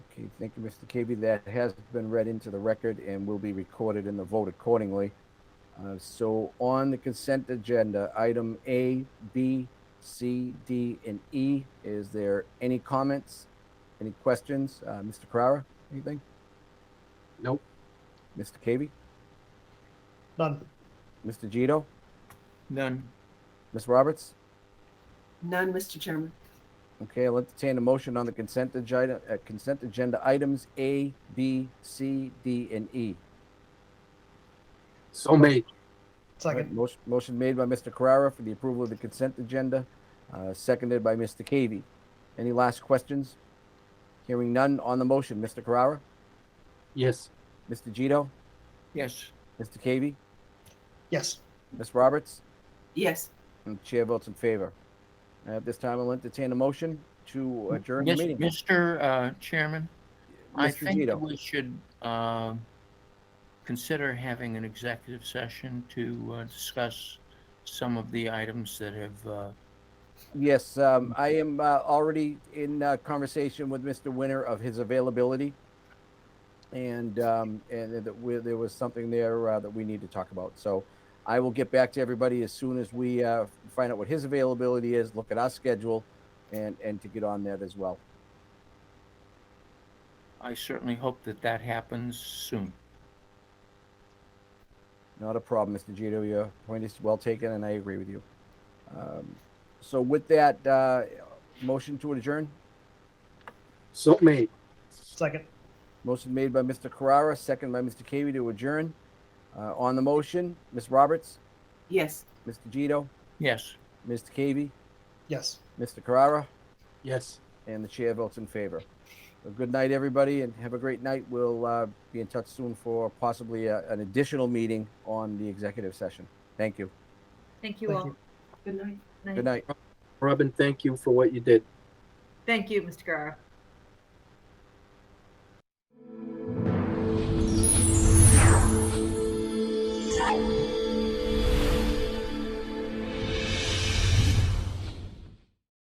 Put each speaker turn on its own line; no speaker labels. Okay, thank you, Mr. Keavy. That has been read into the record and will be recorded in the vote accordingly. Uh, So on the consent agenda, item A, B, C, D, and E, is there any comments? Any questions? Uh, Mr. Carrara, anything?
Nope.
Mr. Keavy?
None.
Mr. Gito?
None.
Ms. Roberts?
None, Mr. Chairman.
Okay, I'll entertain a motion on the consent agenda, uh, consent agenda items A, B, C, D, and E.
So made.
Second.
Motion, motion made by Mr. Carrara for the approval of the consent agenda, uh, seconded by Mr. Cavey. Any last questions? Hearing none on the motion. Mr. Carrara,
Yes.
Mr. Gito,
Yes.
Mr. Cavey,
Yes.
Ms. Roberts,
Yes,
and the chair votes in favor. At this time, I'll entertain a motion to adjourn the
Mis-
meeting.
Mr. uh, Chairman, I
Mr.
think that
Gito,
we should um, consider having an executive session to uh, discuss some of the items that have, uh,
yes, um, I am, uh, already in, uh, conversation with Mr. Winter of his availability. And, um, and that we, there was something there, uh, that we need to talk about. So I will get back to everybody as soon as we, uh, find out what his availability is, look at our schedule and, and to get on that as well.
I certainly hope that that happens soon.
Not a problem, Mr. Gito. Your point is well taken and I agree with you. Um, so with that, uh, motion to adjourn?
So made.
Second.
Motion made by Mr. Carrara, second by Mr. Cavey to adjourn. Uh, on the motion, Ms. Roberts,
yes.
Mr. Gito,
Yes.
Mr. Cavey,
Yes.
Mr. Carrara,
Yes.
and the chair votes in favor. So good night, everybody, and have a great night. We'll uh, be in touch soon for possibly uh an additional meeting on the executive session. Thank you.
Thank you
Thank
all.
you.
Good night.
Good night.
Robin, thank you for what you did.
Thank you, Mr. Guerra.